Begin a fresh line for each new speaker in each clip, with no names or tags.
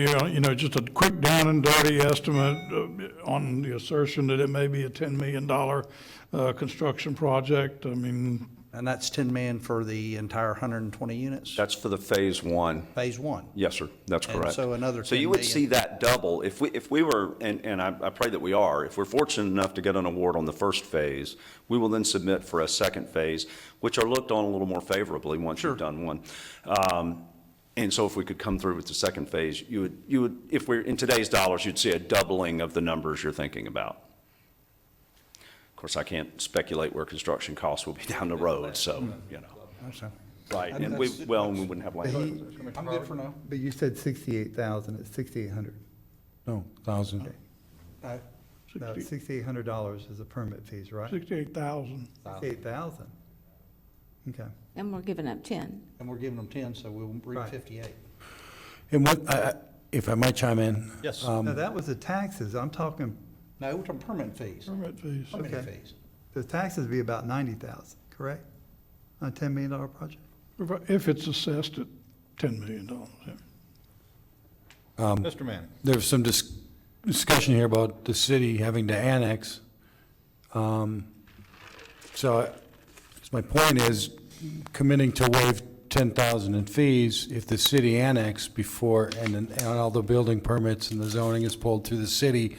Yeah, uh, you know, just a quick down and dirty estimate uh, on the assertion that it may be a $10 million uh, construction project. I mean,
And that's 10 million for the entire 120 units,
That's for the phase one.
phase one.
Yes, sir, that's
And
correct.
so another
So you
10
would
million.
see that double, if we, if we were, and, and I, I pray that we are, if we're fortunate enough to get an award on the first phase, we will then submit for a second phase, which are looked on a little more favorably once you've done one. Um, And so if we could come through with the second phase, you would, you would, if we're, in today's dollars, you'd see a doubling of the numbers you're thinking about. Of course, I can't speculate where construction costs will be down the road, so, you
Mm.
know, right, and we, well, and we wouldn't have
But
land.
he-
I'm good for now.
But you said sixty-eight thousand, it's sixty-eight hundred.
No, thousand.
No, sixty-eight hundred dollars is the permit fees, right?
68,000.
Sixty-eight thousand? Okay.
And we're giving up 10.
And we're giving them 10, so we'll read
Right.
58.
And what, I- I- if I might chime in?
Yes.
um,
No, that was the taxes, I'm talking,
No, we're talking permit fees,
permit fees.
permit
Okay.
fees.
the taxes would be about ninety thousand, correct? On a ten million dollar project?
If it's assessed at $10 million. yeah.
Um,
Mr. Manning.
There was some dis- discussion here about the city having to annex. Um, So I- so my point is committing to waive 10,000 in fees if the city annexed before, and then- and all the building permits and the zoning is pulled through the city,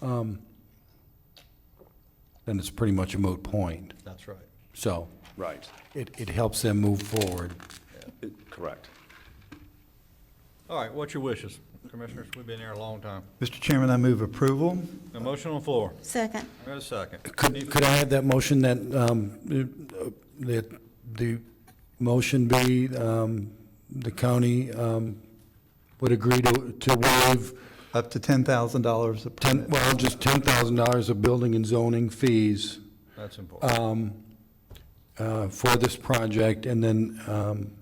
um, then it's pretty much a moot point.
That's right.
So
Right,
it it helps them move forward.
It- correct.
All right, what's your wishes? Commissioners, we've been here a long time.
Mr. Chairman, I move approval.
A motion on the floor.
Second.
Wait a second.
Could, could I have that motion that, um, uh, that the motion be, um, the county, um, would agree to, to waive
Up to ten thousand dollars a
ten,
permit.
well, just ten thousand dollars of building and zoning fees,
That's important.
uh, for this project, and then, um,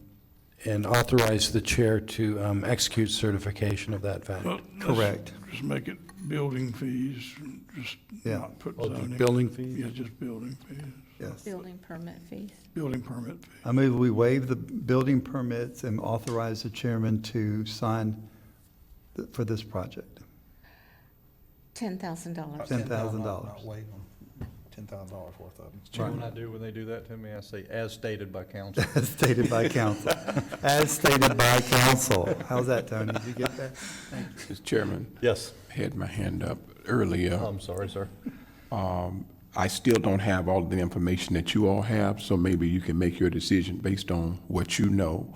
and authorize the chair to, um, execute certification of that fact.
But let's
Correct.
Just make it building fees, and just
Yeah.
not put zoning.
Building fees?
Yeah, just building fees,
Yes.
Building permit fees.
building permit fees.
I move we waive the building permits and authorize the chairman to sign th- for this project.
$10,000.
Ten thousand dollars.
Not waive them, $10,000 worth of them.
You know what I do when they do that to me? I say, as stated by council.
As stated by council. As stated by council. How's that, Tony? Did you get that?
Mr. Chairman,
Yes.
I had my hand up earlier.
I'm sorry, sir.
Um, I still don't have all of the information that you all have, so maybe you can make your decision based on what you know.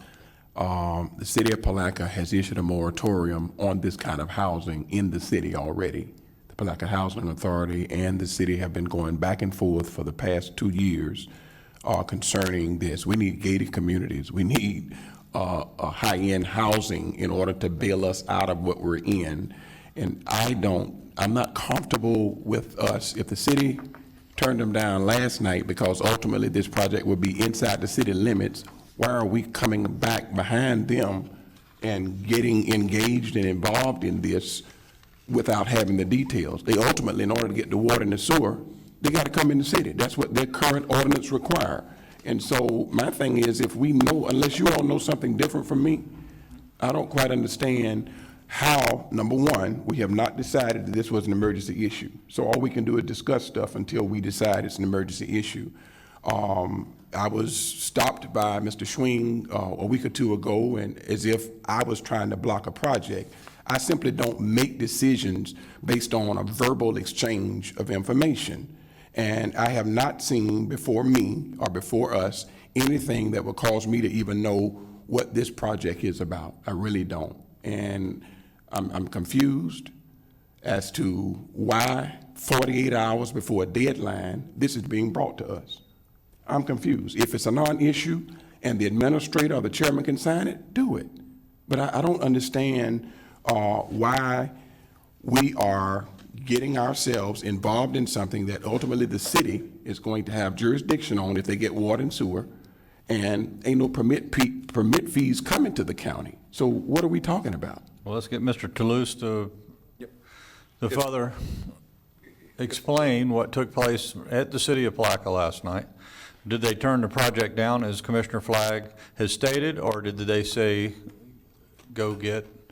Um, The city of Palaca has issued a moratorium on this kind of housing in the city already. The Palaca Housing Authority and the city have been going back and forth for the past two years uh, concerning this. We need gated communities. We need uh, uh, high-end housing in order to bail us out of what we're in. And I don't, I'm not comfortable with us, if the city turned them down last night because ultimately this project would be inside the city limits, why are we coming back behind them and getting engaged and involved in this without having the details? They ultimately, in order to get the water and the sewer, they got to come in the city. That's what their current ordinance require. And so my thing is, if we know, unless you all know something different from me, I don't quite understand how, number one, we have not decided that this was an emergency issue. So all we can do is discuss stuff until we decide it's an emergency issue. Um, I was stopped by Mr. Schwing uh, a week or two ago, and as if I was trying to block a project. I simply don't make decisions based on a verbal exchange of information. And I have not seen before me or before us anything that would cause me to even know what this project is about. I really don't. And I'm, I'm confused as to why 48 hours before a deadline, this is being brought to us. I'm confused. If it's a non-issue and the administrator or the chairman can sign it, do it. But I, I don't understand, uh, why we are getting ourselves involved in something that ultimately the city is going to have jurisdiction on if they get water and sewer, and ain't no permit, pe- permit fees coming to the county. So what are we talking about?
Well, let's get Mr. Toulouse to, to further explain what took place at the city of Placa last night. Did they turn the project down, as Commissioner Flagg has stated, or did they say, go get